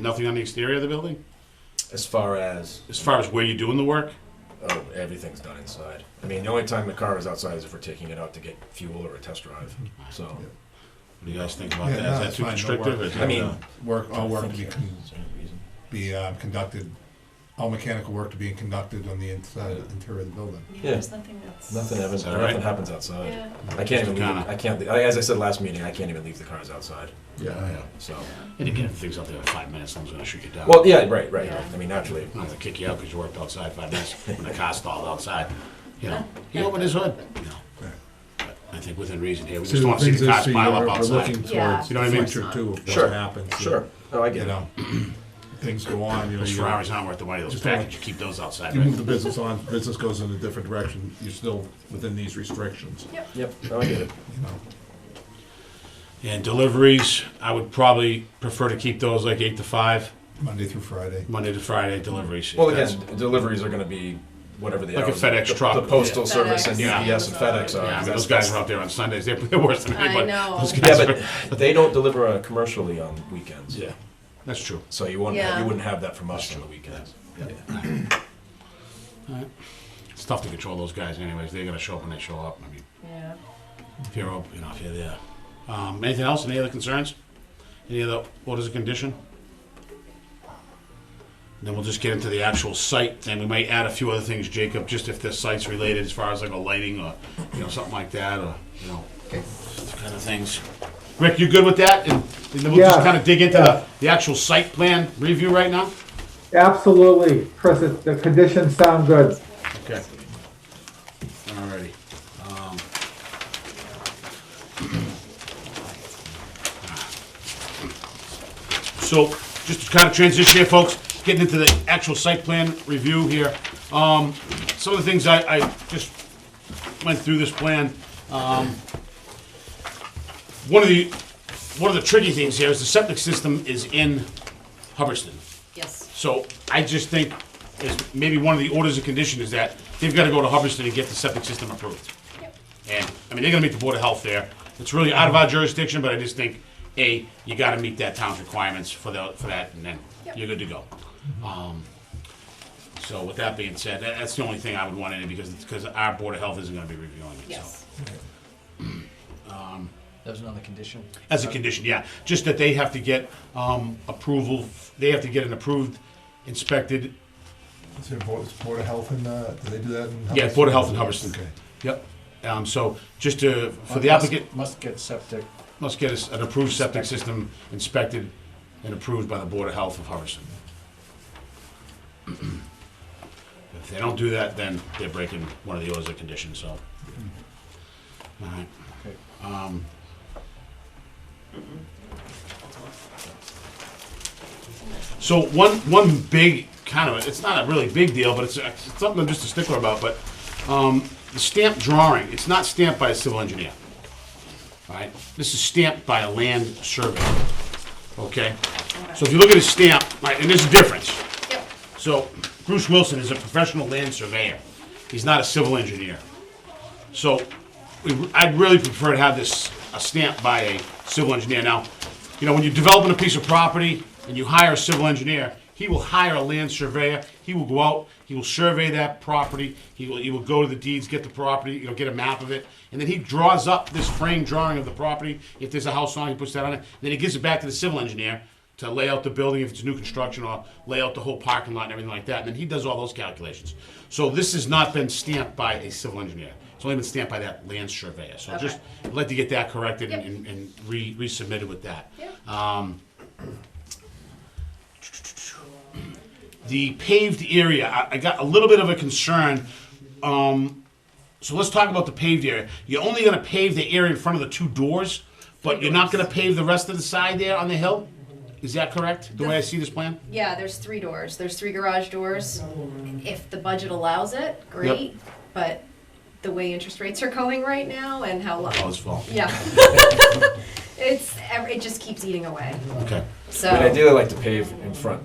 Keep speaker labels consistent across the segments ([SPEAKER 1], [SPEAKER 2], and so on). [SPEAKER 1] Nothing on the exterior of the building?
[SPEAKER 2] As far as
[SPEAKER 1] As far as where you're doing the work?
[SPEAKER 2] oh, everything's done inside. I mean, the only time the car is outside is if we're taking it out to get fuel or a test drive. So
[SPEAKER 1] What do you guys think about
[SPEAKER 3] Yeah,
[SPEAKER 1] that?
[SPEAKER 3] no,
[SPEAKER 1] Is that
[SPEAKER 3] it's
[SPEAKER 1] too
[SPEAKER 3] fine, no
[SPEAKER 1] constrictive?
[SPEAKER 3] worries.
[SPEAKER 1] or is
[SPEAKER 2] I
[SPEAKER 1] that,
[SPEAKER 2] mean,
[SPEAKER 1] uh,
[SPEAKER 3] Work, all work to be,
[SPEAKER 2] Yeah,
[SPEAKER 3] con-
[SPEAKER 2] is there any reason?
[SPEAKER 3] be uh, conducted, all mechanical work to be conducted on the inside, interior of the building.
[SPEAKER 2] Yeah.
[SPEAKER 4] There's nothing that's.
[SPEAKER 2] Nothing happens.
[SPEAKER 1] Is that
[SPEAKER 2] Nothing
[SPEAKER 1] right?
[SPEAKER 2] happens outside.
[SPEAKER 4] Yeah.
[SPEAKER 2] I can't even. Leave,
[SPEAKER 1] Kinda.
[SPEAKER 2] I can't. le- I- As I said last meeting, I can't even leave the cars outside.
[SPEAKER 3] Yeah.
[SPEAKER 2] So.
[SPEAKER 1] And again, if things out there in five minutes, someone's gonna shoot you down.
[SPEAKER 2] Well, yeah, right, right.
[SPEAKER 4] Yeah.
[SPEAKER 2] I mean, naturally.
[SPEAKER 1] I'm gonna kick you out because you worked outside five minutes when the car stalled outside. You know, he opened his hood, you know.
[SPEAKER 3] Right.
[SPEAKER 1] But I think within reason here, we
[SPEAKER 3] So
[SPEAKER 1] just don't
[SPEAKER 3] the
[SPEAKER 1] want to see
[SPEAKER 3] things
[SPEAKER 1] the
[SPEAKER 3] is,
[SPEAKER 1] cars
[SPEAKER 3] so
[SPEAKER 1] pile up
[SPEAKER 3] you're- we're
[SPEAKER 1] outside.
[SPEAKER 3] looking
[SPEAKER 4] Yeah.
[SPEAKER 3] towards
[SPEAKER 1] You know what I mean?
[SPEAKER 3] the future too, of
[SPEAKER 2] Sure.
[SPEAKER 3] what happens.
[SPEAKER 2] Sure. Oh, I
[SPEAKER 3] You
[SPEAKER 2] get it.
[SPEAKER 3] know, things go on, you know,
[SPEAKER 1] Those
[SPEAKER 3] you,
[SPEAKER 1] Ferraris aren't worth the money, those
[SPEAKER 3] uh, Just don't-
[SPEAKER 1] packages, you keep those outside,
[SPEAKER 3] you move the
[SPEAKER 1] right?
[SPEAKER 3] business on, business goes in a different direction, you're still within these restrictions,
[SPEAKER 4] Yep.
[SPEAKER 2] Yep. Oh, I get it.
[SPEAKER 3] you know.
[SPEAKER 1] And deliveries, I would probably prefer to keep those like eight to five,
[SPEAKER 3] Monday through Friday.
[SPEAKER 1] Monday to Friday deliveries. if
[SPEAKER 2] Well,
[SPEAKER 1] that's-
[SPEAKER 2] again, d- deliveries are going to be whatever they
[SPEAKER 1] Like
[SPEAKER 2] are.
[SPEAKER 1] a FedEx
[SPEAKER 2] the,
[SPEAKER 1] truck.
[SPEAKER 2] The postal
[SPEAKER 4] Yeah.
[SPEAKER 2] service and
[SPEAKER 1] FedEx.
[SPEAKER 2] UPS and FedEx
[SPEAKER 1] Yeah,
[SPEAKER 2] are.
[SPEAKER 1] I mean,
[SPEAKER 2] that's-
[SPEAKER 1] those guys are out there on Sundays. They're, they're worse than
[SPEAKER 4] I
[SPEAKER 1] anybody.
[SPEAKER 4] know.
[SPEAKER 1] Those guys are,
[SPEAKER 2] Yeah, but they don't deliver uh, commercially on weekends.
[SPEAKER 1] yeah, that's true.
[SPEAKER 2] So you wouldn't
[SPEAKER 4] Yeah.
[SPEAKER 2] you wouldn't have that from us on the weekends.
[SPEAKER 1] It's tough to control those guys, anyways. They're gonna show up when they show up. I mean,
[SPEAKER 4] Yeah.
[SPEAKER 1] if you're up, you know, if you're there. Um, anything else? Any other concerns? Any other orders of condition? Then we'll just get into the actual site thing. We might add a few other things, Jacob, just if the site's related, as far as like a lighting or you know something like that, or you know, those kind of things. Rick, you good with that? And, and then we'll just
[SPEAKER 5] Yeah,
[SPEAKER 1] kind of dig into
[SPEAKER 5] yeah.
[SPEAKER 1] the, the actual site plan review right now.
[SPEAKER 5] Absolutely, Chris, it- the conditions sound good.
[SPEAKER 1] Okay. Alrighty. Um, So, just to kind of transition here, folks, getting into the actual site plan review here. Um, some of the things I, I just went through this plan. Um, one of the, one of the tricky things here is the septic system is in Hubbardston.
[SPEAKER 4] Yes.
[SPEAKER 1] So I just think, is maybe one of the orders of condition is that they've gotta go to Hubbardston and get the septic system approved.
[SPEAKER 4] Yep.
[SPEAKER 1] And, I mean, they're gonna meet the Board of Health there. It's really out of our jurisdiction, but I just think, A, you gotta meet that town's requirements for the, for that, and then
[SPEAKER 4] Yep.
[SPEAKER 1] you're good to go. Um, So with that being said, that, that's the only thing I would want in it, because, because our Board of Health isn't gonna be reviewing it, so.
[SPEAKER 4] Yes.
[SPEAKER 6] That was another condition.
[SPEAKER 1] As a condition, yeah, just that they have to get, um, approval, they have to get an approved, inspected
[SPEAKER 3] Is there Board, is Board of Health in, uh, do they do that in?
[SPEAKER 1] Yeah,
[SPEAKER 3] Hubbardston?
[SPEAKER 1] Board of Health in Hubbardston.
[SPEAKER 3] Okay.
[SPEAKER 1] Yep. Um, so just to, for the applicant,
[SPEAKER 6] Must get septic.
[SPEAKER 1] must get us an approved septic system inspected and approved by the Board of Health of Hubbardston. If they don't do that, then they're breaking one of the orders of condition, so. Alright.
[SPEAKER 6] Okay.
[SPEAKER 1] Um, So one, one big kind of, it's not a really big deal, but it's, it's something I'm just a stickler about, but, um, the stamp drawing, it's not stamped by a civil engineer. All right, this is stamped by a land surveyor, okay? So if you look at his stamp, right, and there's a difference.
[SPEAKER 4] Yep.
[SPEAKER 1] So Bruce Wilson is a professional land surveyor. He's not a civil engineer. So we- I'd really prefer to have this uh, stamped by a civil engineer. Now, you know, when you're developing a piece of property and you hire a civil engineer, he will hire a land surveyor. He will go out, he will survey that property. He will, he will go to the deeds, get the property, you know, get a map of it. And then he draws up this frame drawing of the property. If there's a house on it, he puts that on it. Then he gives it back to the civil engineer to lay out the building if it's new construction or lay out the whole parking lot and everything like that. And then he does all those calculations. So this has not been stamped by a civil engineer. It's only been stamped by that land surveyor. So
[SPEAKER 4] Okay.
[SPEAKER 1] just I'd like to get that corrected
[SPEAKER 4] Yep.
[SPEAKER 1] and, and re- resubmitted with that.
[SPEAKER 4] Yep.
[SPEAKER 1] Um, the paved area, I, I got a little bit of a concern. Um, so let's talk about the paved area. You're only going to pave the area in front of the two doors, but you're not going to pave the rest of the side there on the hill. Is that correct? The way I see this plan?
[SPEAKER 4] Yeah, there's three doors. There's three garage doors. If the budget allows it, great. But the way interest rates are going right now and how long.
[SPEAKER 1] Oh, it's full.
[SPEAKER 4] Yeah. it's ev- it just keeps eating away.
[SPEAKER 1] Okay.
[SPEAKER 4] So
[SPEAKER 2] I mean, ideally, I like to pave in front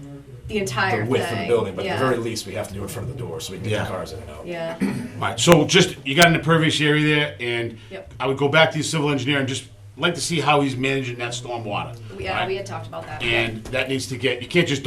[SPEAKER 4] the entire
[SPEAKER 2] the width
[SPEAKER 4] thing.
[SPEAKER 2] of the building, but
[SPEAKER 4] yeah.
[SPEAKER 2] at the very least, we have to do it in front of the door so we can get
[SPEAKER 1] Yeah.
[SPEAKER 2] the cars in and out.
[SPEAKER 4] yeah.
[SPEAKER 1] All right, so just, you got an impervious area there, and
[SPEAKER 4] Yep.
[SPEAKER 1] I would go back to the civil engineer and just
[SPEAKER 4] like to see how he's managing that storm water.
[SPEAKER 1] Yeah, we had talked about that.
[SPEAKER 4] And that needs to get, you can't just